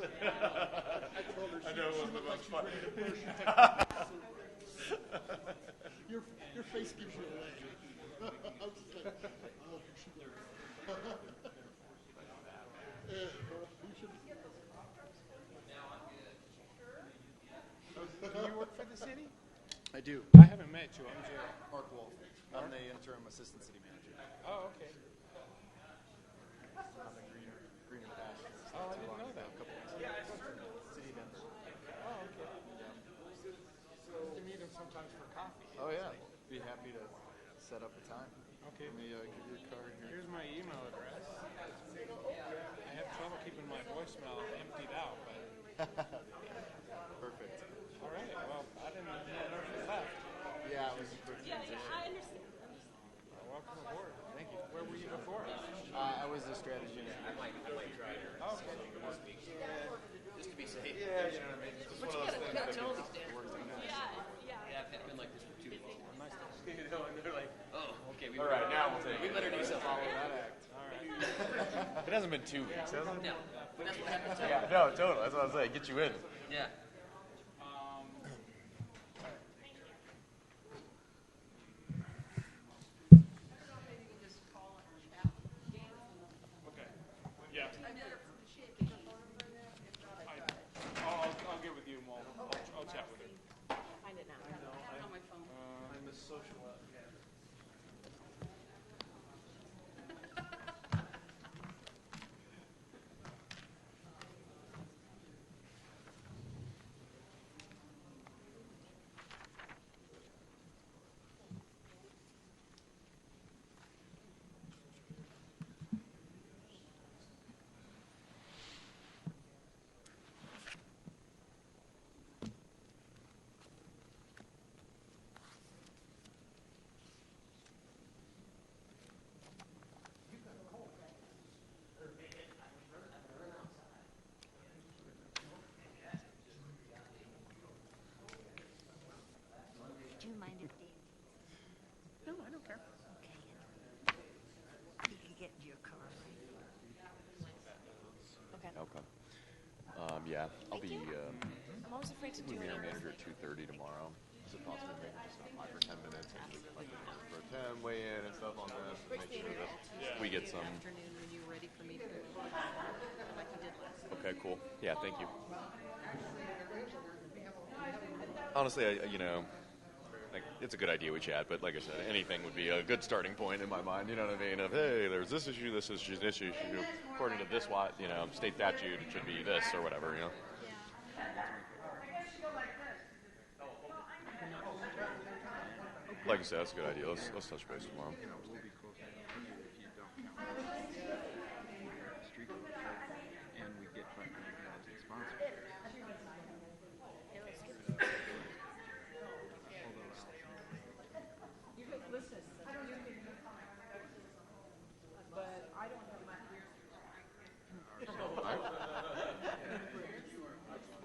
like you ran a commercial. Your, your face gives you away. I was just like, oh, you should go. Eh, you should- Do you work for the city? I do. I haven't met you. I'm Jerry. Mark Wolf. I'm the interim assistant city manager. Oh, okay. I'm the greener, greener pastures. Oh, I didn't know that. A couple weeks ago. City member. Oh, okay. You meet him sometimes for coffee. Oh yeah. Be happy to set up a time. Okay. Let me uh, give you a card here. Here's my email address. I have trouble keeping my voicemail emptied out, but Perfect. all right. Well, I didn't know if you left. Yeah, it was a quick Yeah, yeah, I understand. transition. Welcome aboard. Thank you. Where were you before? Oh, Uh, I was a strategy engineer. Okay. Just to be safe. Yeah, yeah. I've been like this for too long. Nice to see Oh, okay. We All right, now we'll take We it. better do something. Follow that act. It hasn't been two weeks, has it? No, but that's what happens. Yeah, no, totally. That's what I was saying. Get you in. Yeah. Um, you. Okay. Yeah. I- I'll, I'll, I'll get with you and we'll, I'll, I'll chat with you. Find it now. I'm a social Do you mind if Dave? No, I don't care. Okay. You can get into your car, right? Okay. Okay. Um, yeah, I'll be um, I'm always afraid to do moving it. our manager at two thirty tomorrow. Is it possible maybe just stop by for ten minutes and we can like pro tem weigh in and stuff on this? and Make sure that we get some. afternoon when you're ready for me to, like you did last. Okay, cool. Yeah, thank you. Honestly, I, you know, like, it's a good idea we chat, but like I said, anything would be a good starting point in my mind. You know what I mean? Of hey, there's this issue, this issue, this issue. According to this, what you know, state statute, it should be this or whatever. You know. Like I said, that's a good idea. Let's let's touch base tomorrow. We'll be close enough to you if you don't count. Street and we get five hundred thousand sponsors. You could listen, you could. But I don't have my career.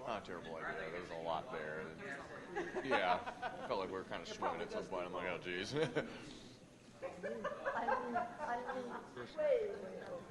Not a terrible idea. There was a lot there. Yeah, felt like we were kind of swimming at some point. I'm like, oh, geez. I lean, I lean way, way over.